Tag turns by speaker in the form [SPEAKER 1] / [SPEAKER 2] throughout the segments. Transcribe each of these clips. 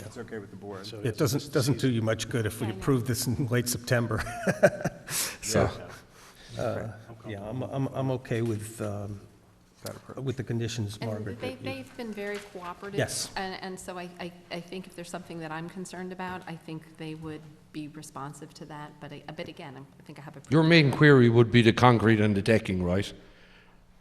[SPEAKER 1] it's okay with the board.
[SPEAKER 2] It doesn't, doesn't do you much good if we approve this in late September. So, uh, yeah, I'm, I'm, I'm okay with, um,
[SPEAKER 1] That approach.
[SPEAKER 2] with the conditions,
[SPEAKER 3] And
[SPEAKER 2] Margaret.
[SPEAKER 3] they,
[SPEAKER 2] that you-
[SPEAKER 3] they've been very cooperative.
[SPEAKER 2] Yes.
[SPEAKER 3] And, and so I, I, I think if there's something that I'm concerned about, I think they would be responsive to that, but I, but again, I think I have a.
[SPEAKER 4] Your main query would be the concrete and the decking, right?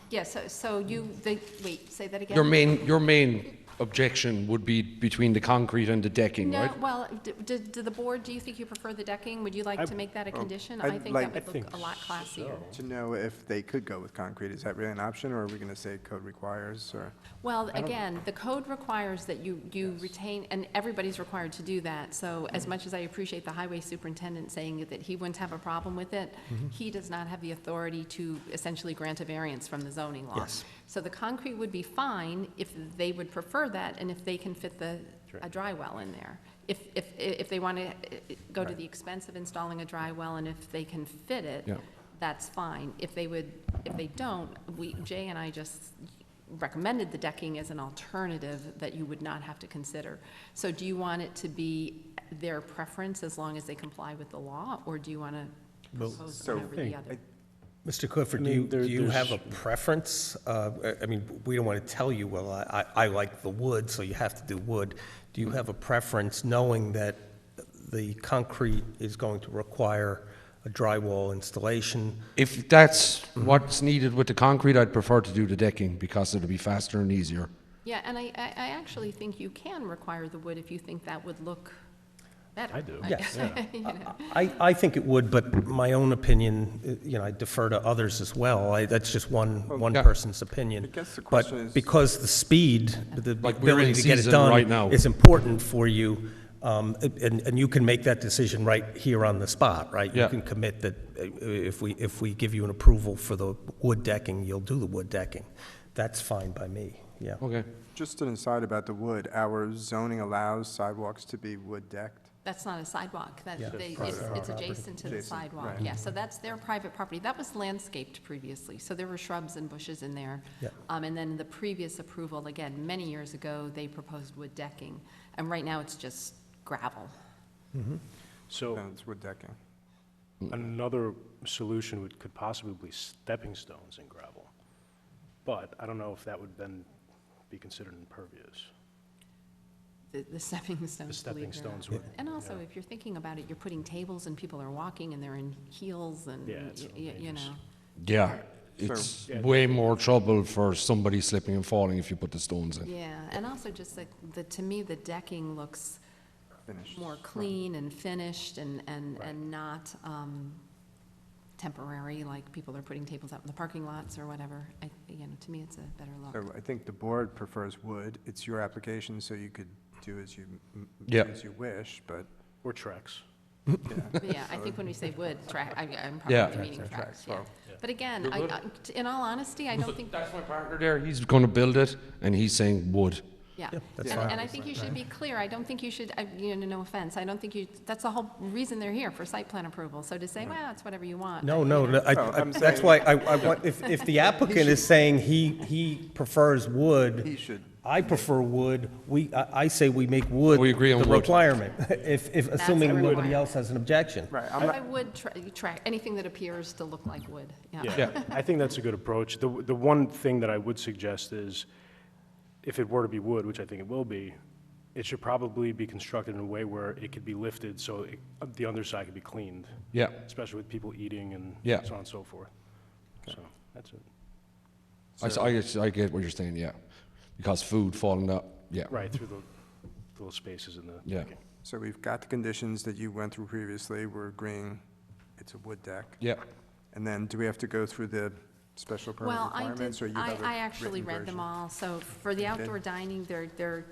[SPEAKER 3] Yeah, so, so you, they, wait, say that again?
[SPEAKER 4] Your main, your main objection would be between the concrete and the decking,
[SPEAKER 3] No,
[SPEAKER 4] right?
[SPEAKER 3] well, d- d do the board, do you think you prefer the decking? Would you like to make that a condition? I
[SPEAKER 1] I'd
[SPEAKER 3] think
[SPEAKER 1] like-
[SPEAKER 3] that would look a lot classier.
[SPEAKER 1] To know if they could go with concrete, is that really an option, or are we gonna say code requires, or?
[SPEAKER 3] Well, again, the code requires that you, you retain, and everybody's required to do that, so as much as I appreciate the highway superintendent saying that he wouldn't have a problem with it, he does not have the authority to essentially grant a variance from the zoning law.
[SPEAKER 2] Yes.
[SPEAKER 3] So the concrete would be fine if they would prefer that, and if they can fit the, a dry well in there. If, if, if they want to go to the expense of installing a dry well, and if they can fit it,
[SPEAKER 4] Yeah.
[SPEAKER 3] that's fine. If they would, if they don't, we, Jay and I just recommended the decking as an alternative that you would not have to consider. So do you want it to be their preference as long as they comply with the law, or do you want to propose one over the other?
[SPEAKER 2] Mr. Clifford, do
[SPEAKER 5] mean,
[SPEAKER 2] you, do
[SPEAKER 5] there-
[SPEAKER 2] you have a
[SPEAKER 5] there's-
[SPEAKER 2] preference? Uh, I- I mean, we don't want to tell you, well, I, I I like the wood, so you have to do wood. Do you have a preference, knowing that the concrete is going to require a drywall installation?
[SPEAKER 4] If that's what's needed with the concrete, I'd prefer to do the decking because it'll be faster and easier.
[SPEAKER 3] Yeah, and I, I, I actually think you can require the wood if you think that would look better.
[SPEAKER 5] I do.
[SPEAKER 2] Yes.
[SPEAKER 3] You know.
[SPEAKER 2] I, I think it would, but my own opinion, uh, you know, I defer to others as well. I, that's just one, one
[SPEAKER 4] yeah.
[SPEAKER 2] person's opinion.
[SPEAKER 1] I guess the question is-
[SPEAKER 2] But because the speed, the
[SPEAKER 4] Like, we're
[SPEAKER 2] ability
[SPEAKER 4] in
[SPEAKER 2] to get it
[SPEAKER 4] season
[SPEAKER 2] done.
[SPEAKER 4] right now.
[SPEAKER 2] Is important for you, um, and, and you can make that decision right here on the spot, right? You
[SPEAKER 4] Yeah.
[SPEAKER 2] can commit that uh, if we, if we give you an approval for the wood decking, you'll do the wood decking. That's fine by me, yeah.
[SPEAKER 4] Okay.
[SPEAKER 1] Just an aside about the wood, our zoning allows sidewalks to be wood decked.
[SPEAKER 3] That's not a sidewalk, that,
[SPEAKER 2] Yeah.
[SPEAKER 3] they- it's, it's adjacent to the
[SPEAKER 1] Adjacent,
[SPEAKER 3] sidewalk,
[SPEAKER 1] right.
[SPEAKER 3] yeah, so that's their private property, that was landscaped previously, so there were shrubs and bushes in there.
[SPEAKER 2] Yeah.
[SPEAKER 3] Um, and then the previous approval, again, many years ago, they proposed wood decking, and right now it's just gravel.
[SPEAKER 5] So
[SPEAKER 1] No, it's wood decking.
[SPEAKER 4] Mm.
[SPEAKER 5] another solution would, could possibly be stepping stones in gravel. But I don't know if that would then be considered impervious.
[SPEAKER 3] The, the stepping stones.
[SPEAKER 5] The
[SPEAKER 3] believe it or
[SPEAKER 5] stepping
[SPEAKER 3] not.
[SPEAKER 5] stones would,
[SPEAKER 3] And also, if you're thinking about it, you're putting tables and people are walking and they're in heels and,
[SPEAKER 5] Yeah, it's
[SPEAKER 3] y-
[SPEAKER 5] all
[SPEAKER 3] y- you
[SPEAKER 5] dangerous.
[SPEAKER 3] know.
[SPEAKER 4] Yeah, it's way more trouble for somebody slipping and falling if you put the stones in.
[SPEAKER 3] Yeah, and also just like, the, to me, the decking looks
[SPEAKER 1] Finished.
[SPEAKER 3] more clean and finished and, and, and not, um, temporary, like people are putting tables out in the parking lots or whatever. I, you know, to me, it's a better look.
[SPEAKER 1] So I think the board prefers wood. It's your application, so you could do as you, m- do
[SPEAKER 4] Yeah.
[SPEAKER 1] as you wish, but,
[SPEAKER 5] or tracks.
[SPEAKER 3] But Yeah, I think when we say wood, track, I, I'm
[SPEAKER 4] Yeah.
[SPEAKER 3] probably meaning tracks, yeah. But again, I, I- in all honesty, I don't think
[SPEAKER 4] That's my partner there, he's gonna build it, and he's saying wood.
[SPEAKER 3] Yeah.
[SPEAKER 2] that's
[SPEAKER 3] And-
[SPEAKER 2] fine.
[SPEAKER 3] And I think you should be clear, I don't think you should, I- you know, no offense, I don't think you, that's the whole reason they're here, for site plan approval, so to say, well, it's whatever you want.
[SPEAKER 2] No, no, no,
[SPEAKER 1] No,
[SPEAKER 2] I, I,
[SPEAKER 1] I'm
[SPEAKER 2] that's
[SPEAKER 1] saying-
[SPEAKER 2] why I, I want, if, if the applicant is saying he, he prefers wood.
[SPEAKER 1] He should.
[SPEAKER 2] I prefer wood, we, I, I say we make wood.
[SPEAKER 4] We agree on
[SPEAKER 2] The
[SPEAKER 4] wood.
[SPEAKER 2] requirement, if, if, assuming nobody
[SPEAKER 3] requirement.
[SPEAKER 2] else has an objection.
[SPEAKER 1] right, I'm
[SPEAKER 3] I
[SPEAKER 1] not,
[SPEAKER 3] would tra- track, anything that appears to look like wood, yeah.
[SPEAKER 4] Yeah.
[SPEAKER 5] I think that's a good approach. The, the one thing that I would suggest is, if it were to be wood, which I think it will be, it should probably be constructed in a way where it could be lifted, so it- the underside could be cleaned.
[SPEAKER 4] Yeah.
[SPEAKER 5] Especially with people eating and
[SPEAKER 4] Yeah.
[SPEAKER 5] so on and so forth. So, that's it.
[SPEAKER 4] I, s- I guess- I get what you're saying, yeah, because food falling out, yeah.
[SPEAKER 5] Right, through the little spaces in the.
[SPEAKER 4] Yeah.
[SPEAKER 5] okay.
[SPEAKER 1] so we've got the conditions that you went through previously. We're agreeing it's a wood deck.
[SPEAKER 4] Yeah,
[SPEAKER 1] And then do we have to go through the special permit
[SPEAKER 3] Well, I did,
[SPEAKER 1] requirements, or you
[SPEAKER 3] I,
[SPEAKER 1] have a
[SPEAKER 3] I actually
[SPEAKER 1] written
[SPEAKER 3] read them
[SPEAKER 1] version?
[SPEAKER 3] all, so for the outdoor dining, they're, they're,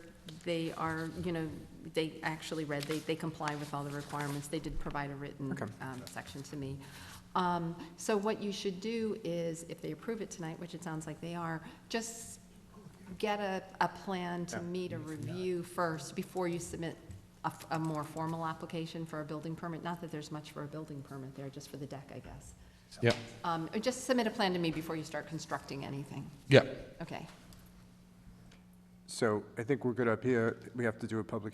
[SPEAKER 3] they are, you know, they actually read, they, they comply with all the requirements, they did provide a written, um, section to me. Um, so what you should do is, if they approve it tonight, which it sounds like they are, just get a, a plan to meet a review first before you submit a, f- a more formal application for a building permit, not that there's much for a building permit there, just for the deck, I guess.
[SPEAKER 4] yeah,
[SPEAKER 3] Um, or Just submit a plan to me before you start constructing anything.
[SPEAKER 4] yeah.
[SPEAKER 3] Okay.
[SPEAKER 1] So I think we're good up here. We have to do a public